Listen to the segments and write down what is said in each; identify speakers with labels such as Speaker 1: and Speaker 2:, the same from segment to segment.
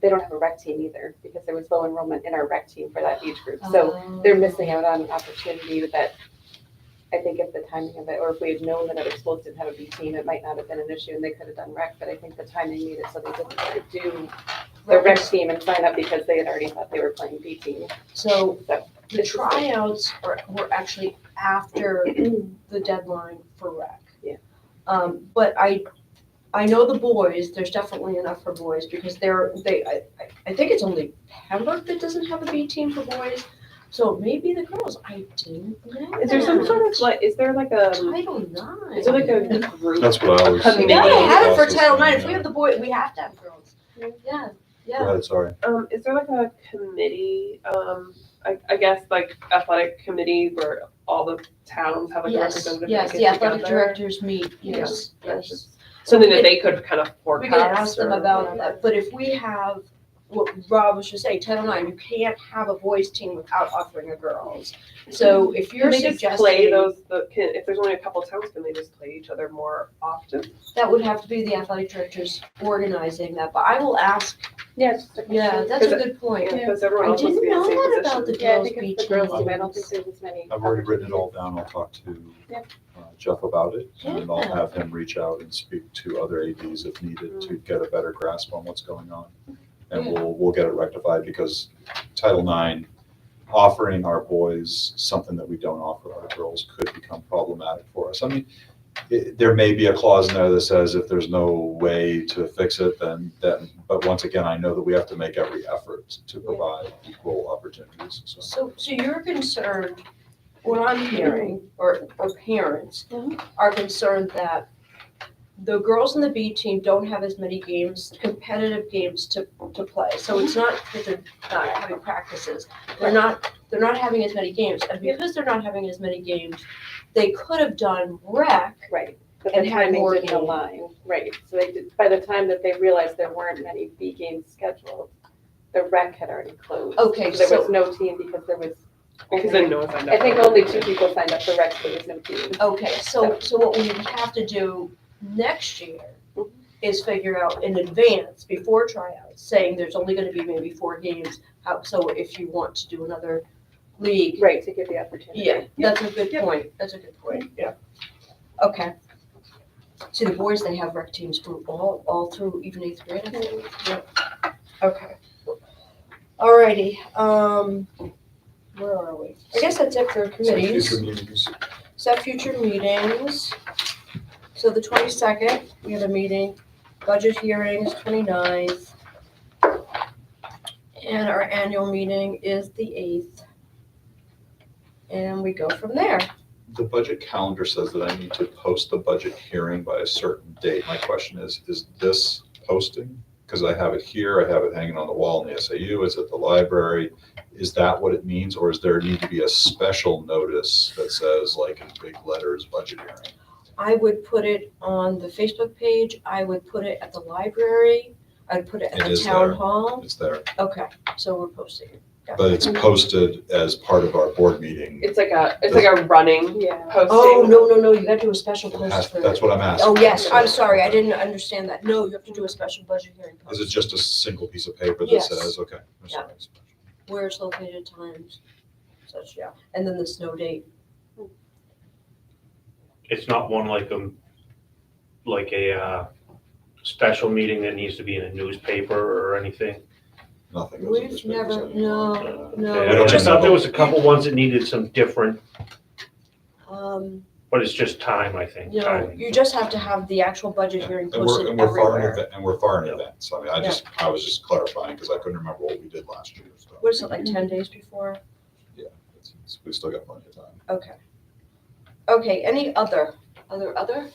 Speaker 1: they don't have a rec team either because there was low enrollment in our rec team for that age group. So they're missing out on an opportunity that I think if the timing of it, or if we had known that other schools didn't have a B team, it might not have been an issue and they could have done rec, but I think the timing made it so they didn't want to do
Speaker 2: Oh,
Speaker 1: the rec team and sign up because they had already thought they were playing B team.
Speaker 2: So
Speaker 1: So
Speaker 2: the tryouts are, were actually after the deadline for rec.
Speaker 1: Yeah.
Speaker 2: Um, but I, I know the boys, there's definitely enough for boys because they're, they, I, I- I think it's only Pembroke that doesn't have a B team for boys. So maybe the girls, I didn't know.
Speaker 1: Is there some
Speaker 2: that.
Speaker 1: sort of like, is there like a,
Speaker 2: Title nine.
Speaker 1: is there like a group?
Speaker 3: That's what I was.
Speaker 1: Yeah,
Speaker 2: Yeah,
Speaker 1: they
Speaker 2: they had it for Title nine. If we have the boy, we have to have girls.
Speaker 1: Yeah.
Speaker 2: Yeah,
Speaker 3: Go
Speaker 2: yeah.
Speaker 3: ahead, sorry.
Speaker 4: Um, is there like a committee, um, I, I guess like athletic committee where all the towns have like a
Speaker 2: Yes,
Speaker 4: representative? that
Speaker 2: yes,
Speaker 4: gets
Speaker 2: the athletic
Speaker 4: together?
Speaker 2: directors meet, yes,
Speaker 4: Yeah.
Speaker 2: yes.
Speaker 4: Something that they could kind of forecast.
Speaker 2: We could ask them
Speaker 4: or-
Speaker 2: about that, but if we have, what Rob was just saying, Title IX, you can't have a boys team without offering a girls. So if
Speaker 4: Can
Speaker 2: you're
Speaker 4: they just play
Speaker 2: suggesting,
Speaker 4: those, the, can, if there's only a couple towns, can they just play each other more often?
Speaker 2: that would have to be the athletic directors organizing that, but I will ask,
Speaker 1: Yeah, it's just a
Speaker 2: yeah,
Speaker 1: question.
Speaker 2: that's a
Speaker 4: Because
Speaker 2: good point.
Speaker 4: Because everyone
Speaker 2: I
Speaker 4: else must
Speaker 2: didn't
Speaker 4: be in the
Speaker 2: know
Speaker 4: same position.
Speaker 2: that about the
Speaker 1: Yeah, I
Speaker 2: girls'
Speaker 1: think
Speaker 2: beach.
Speaker 1: it's the girls'
Speaker 2: team.
Speaker 1: team. I don't think there's as many.
Speaker 3: I've already written it all down. I'll talk to
Speaker 1: Yep.
Speaker 3: uh, Jeff about it, and then I'll
Speaker 2: Yeah. Mm.
Speaker 3: have him reach out and speak to other ADs if needed to get a better grasp on what's going on. And
Speaker 2: Yeah.
Speaker 3: we'll, we'll get it rectified because Title IX, offering our boys something that we don't offer our girls could become problematic for us. I mean, it- there may be a clause in there that says if there's no way to fix it, then, then, but once again, I know that we have to make every effort to provide equal opportunities, so.
Speaker 2: So, so you're concerned, what I'm hearing, or, or parents
Speaker 1: Mhm.
Speaker 2: are concerned that the girls in the B team don't have as many games, competitive games to, to play. So it's not that they're not having practices, they're not, they're not having as many games. And because they're not having as many games, they could have done rec.
Speaker 1: Right, but the
Speaker 2: And had
Speaker 1: timing
Speaker 2: more
Speaker 1: didn't
Speaker 2: games.
Speaker 1: align, right, so they did, by the time that they realized there weren't many B games scheduled, the rec had already closed.
Speaker 2: Okay,
Speaker 1: There was
Speaker 2: so-
Speaker 1: no team because there was,
Speaker 4: Because then no one signed
Speaker 1: I
Speaker 4: up.
Speaker 1: think only two people signed up for rec, so there was no team.
Speaker 2: Okay, so, so what we have to do next year is figure out in advance, before tryouts, saying there's only gonna be maybe four games, how, so if you want to do another league.
Speaker 1: Right, to give the opportunity.
Speaker 2: Yeah, that's a good point, that's a good point, yeah. Okay. See, the boys, they have rec teams through all, all through even eighth grade, I think. Yep. Okay. Alrighty, um, where are we? I guess that's it for
Speaker 3: So
Speaker 2: committees.
Speaker 3: Future meetings.
Speaker 2: Set future meetings. So the twenty-second, we have a meeting, budget hearings, 29th, And our annual meeting is the eighth. And we go from there.
Speaker 3: The budget calendar says that I need to post the budget hearing by a certain date. My question is, is this posting? Because I have it here, I have it hanging on the wall in the SAU, it's at the library. Is that what it means, or is there need to be a special notice that says like in big letters, budget hearing?
Speaker 2: I would put it on the Facebook page, I would put it at the library, I'd put it at
Speaker 3: It
Speaker 2: the
Speaker 3: is
Speaker 2: town
Speaker 3: there.
Speaker 2: hall.
Speaker 3: It's there,
Speaker 2: Okay, so we're posting it.
Speaker 3: but it's posted as part of our board meeting.
Speaker 4: It's like a, it's like a running
Speaker 1: Yeah.
Speaker 4: posting.
Speaker 2: Oh, no, no, no, you gotta do a special post
Speaker 3: That's
Speaker 2: for.
Speaker 3: that's what I'm asking.
Speaker 2: Oh, yes, I'm sorry, I didn't understand that. No, you have to do a special budget hearing post.
Speaker 3: Is it just a single piece of paper that
Speaker 2: Yes.
Speaker 3: says, okay? I'm sorry.
Speaker 2: where it's located times, such, yeah, and then the snow date.
Speaker 5: it's not one like a, like a, uh, special meeting that needs to be in a newspaper or anything.
Speaker 3: Nothing. goes in
Speaker 2: We've
Speaker 3: this paper,
Speaker 2: never,
Speaker 3: so-
Speaker 2: no,
Speaker 3: We
Speaker 5: I
Speaker 3: don't
Speaker 2: no.
Speaker 5: just
Speaker 3: need
Speaker 5: thought there
Speaker 3: that.
Speaker 5: was a couple ones that needed some different,
Speaker 2: Um,
Speaker 5: but it's just time, I think,
Speaker 2: no,
Speaker 5: timing.
Speaker 2: you just have to have the actual budget hearing
Speaker 3: And we're,
Speaker 2: posted
Speaker 3: and we're far in
Speaker 2: everywhere.
Speaker 3: advance, and we're far in
Speaker 5: Yeah.
Speaker 3: advance, so I mean, I just, I was just clarifying, because I couldn't remember what we did last year, so.
Speaker 2: What is it, like ten days before?
Speaker 3: Yeah, it's- it's- we've still got plenty of time.
Speaker 2: Okay. Okay, any other, other, other?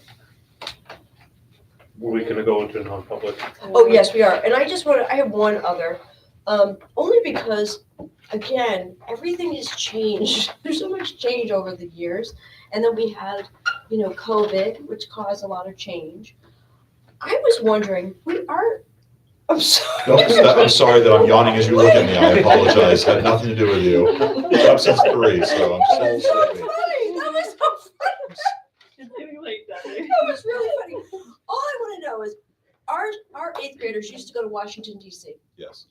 Speaker 5: Were we gonna go into a non-public?
Speaker 2: Oh, yes, we are, and I just wanna, I have one other, um, only because, again, everything has changed. There's so much change over the years, and then we had, you know, COVID, which caused a lot of change. I was wondering, we are, I'm sorry.
Speaker 3: No, that- I'm sorry that I'm yawning as you look at me, I apologize, had nothing to do with you. It's up since three, so I'm
Speaker 2: That
Speaker 3: still
Speaker 2: was so funny.
Speaker 3: sleepy.
Speaker 2: That was so funny.
Speaker 4: It's getting late,
Speaker 2: That was really funny. All I want to know is, are our, our eighth graders used to go to Washington DC.
Speaker 3: yes.